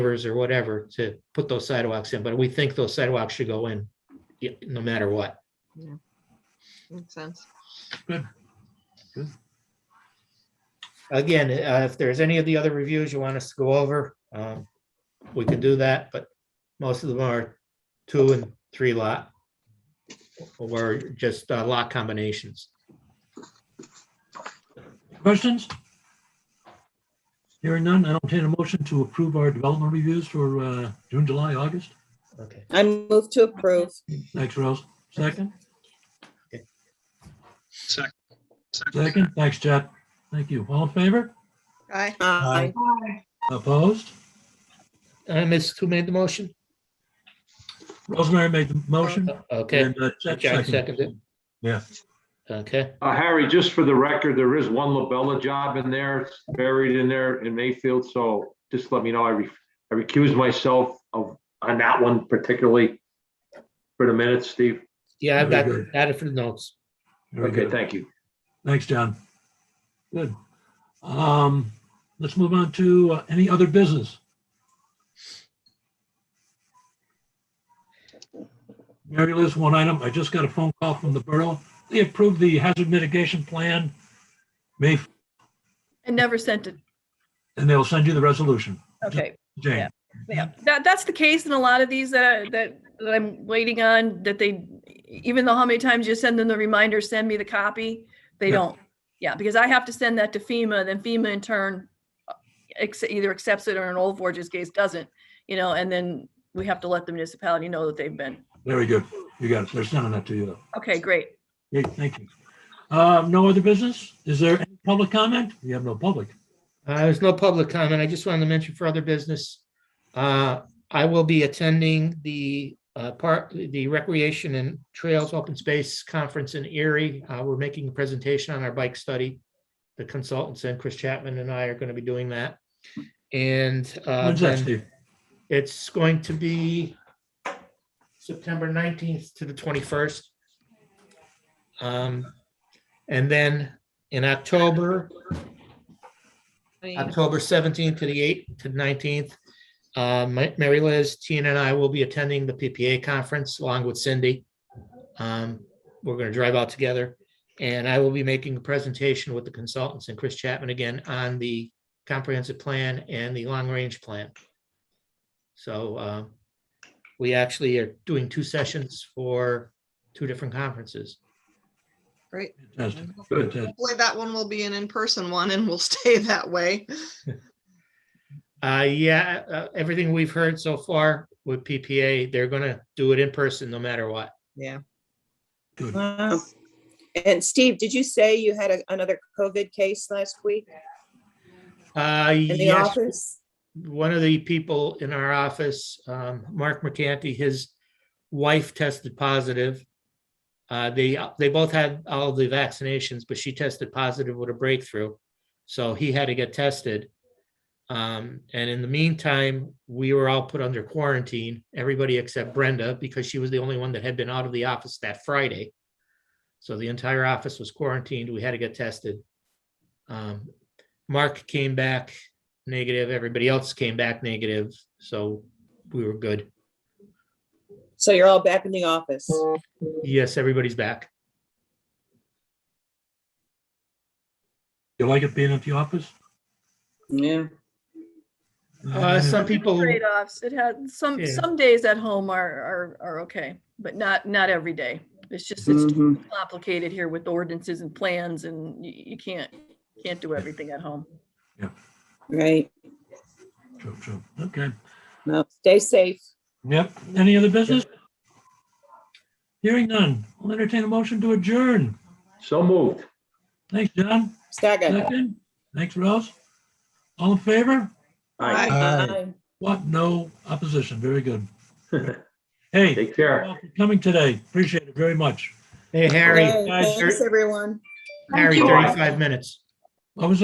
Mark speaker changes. Speaker 1: pavers or whatever to put those sidewalks in, but we think those sidewalks should go in, yeah, no matter what.
Speaker 2: Makes sense.
Speaker 1: Again, uh, if there's any of the other reviews you want us to go over, um, we can do that, but most of them are two and three lot or just uh, lot combinations.
Speaker 3: Questions? Hearing none, I entertain a motion to approve our development reviews for uh, June, July, August.
Speaker 1: Okay,
Speaker 4: I move to approve.
Speaker 3: Thanks, Rose. Second,
Speaker 5: Second.
Speaker 3: second. Thanks, Chad. Thank you. All in favor?
Speaker 2: Aye.
Speaker 4: Aye.
Speaker 3: Opposed?
Speaker 1: Uh, Ms. Who made the motion?
Speaker 3: Rosemary made the motion.
Speaker 1: Okay,
Speaker 3: and, uh, Chad
Speaker 1: Chad seconded.
Speaker 3: Yeah.
Speaker 1: okay,
Speaker 6: Uh, Harry, just for the record, there is one Labella job in there, it's buried in there in Mayfield, so just let me know, I re- I recuse myself of, on that one particularly for the minutes, Steve.
Speaker 1: yeah, I've got,
Speaker 3: Very good.
Speaker 1: got it for the notes.
Speaker 3: Very
Speaker 6: Okay,
Speaker 3: good.
Speaker 6: thank you.
Speaker 3: Thanks, John. Good. Um, let's move on to uh, any other business. Mary Liz, one item. I just got a phone call from the borough. They approved the hazard mitigation plan. May,
Speaker 7: And never sent it.
Speaker 3: and they'll send you the resolution.
Speaker 7: Okay.
Speaker 3: Jane,
Speaker 7: Yeah. Yeah, that, that's the case in a lot of these that, that, that I'm waiting on, that they, even though how many times you send them the reminder, send me the copy, they
Speaker 3: Yeah.
Speaker 7: don't. Yeah, because I have to send that to FEMA, then FEMA in turn uh, acce- either accepts it or in Old Forge's case doesn't, you know, and then we have to let the municipality know that they've been.
Speaker 3: very good. You got it. They're sending that to you though.
Speaker 7: Okay, great.
Speaker 3: Great, thank you. Um, no other business? Is there any public comment? We have no public.
Speaker 1: Uh, There's no public comment. I just wanted to mention for other business. uh, I will be attending the uh, part, the Recreation and Trails Open Space Conference in Erie. Uh, We're making a presentation on our bike study. The consultants and Chris Chapman and I are going to be doing that. And uh,
Speaker 3: When's that,
Speaker 1: then
Speaker 3: Steve?
Speaker 1: it's going to be September 19th to the 21st. Um, And then in October, October 17th to the 8th to 19th. Uh, Ma- Mary Liz, Tina and I will be attending the PPA conference along with Cindy. Um, We're going to drive out together and I will be making a presentation with the consultants and Chris Chapman again on the comprehensive plan and the long range plan. So uh, we actually are doing two sessions for two different conferences.
Speaker 2: Great.
Speaker 3: Fantastic. Fantastic.
Speaker 2: Hopefully that one will be an in-person one and will stay that way.
Speaker 1: Uh, yeah, uh, everything we've heard so far with PPA, they're going to do it in person no matter what.
Speaker 2: Yeah.
Speaker 3: Good.
Speaker 4: Wow. um, And Steve, did you say you had a- another COVID case last week
Speaker 1: Uh,
Speaker 4: in the
Speaker 1: yes,
Speaker 4: office?
Speaker 1: one of the people in our office, um, Mark McCanty, his wife tested positive. Uh, they, they both had all of the vaccinations, but she tested positive with a breakthrough. So he had to get tested. Um, and in the meantime, we were all put under quarantine, everybody except Brenda, because she was the only one that had been out of the office that Friday. So the entire office was quarantined. We had to get tested. Um, Mark came back negative. Everybody else came back negative, so we were good.
Speaker 4: So you're all back in the office.
Speaker 1: Yes, everybody's back.
Speaker 3: You like it being at the office?
Speaker 4: Yeah.
Speaker 1: Uh, some people,
Speaker 7: Trade-offs. It had, some,
Speaker 1: Yeah.
Speaker 7: some days at home are, are, are okay, but not, not every day. It's just, it's
Speaker 6: Mm-hmm.
Speaker 4: Mhm.
Speaker 7: complicated here with ordinances and plans and you, you can't, can't do everything at home.
Speaker 4: Right.
Speaker 3: True, true. Okay.
Speaker 4: Well, stay safe.
Speaker 3: Yep. Any other business? Hearing none. I'll entertain a motion to adjourn.
Speaker 6: So moved.
Speaker 3: Thanks, John.
Speaker 4: Second.
Speaker 3: Second. Thanks, Rose. All in favor?
Speaker 6: Aye.
Speaker 4: Aye.
Speaker 3: What? No opposition. Very good. Hey, thank
Speaker 6: Take care.
Speaker 3: you all for coming today. Appreciate it very much.
Speaker 1: hey, Harry,
Speaker 4: Yay. Thanks, everyone.
Speaker 1: Harry,
Speaker 6: you.
Speaker 1: thirty-five minutes.
Speaker 3: What was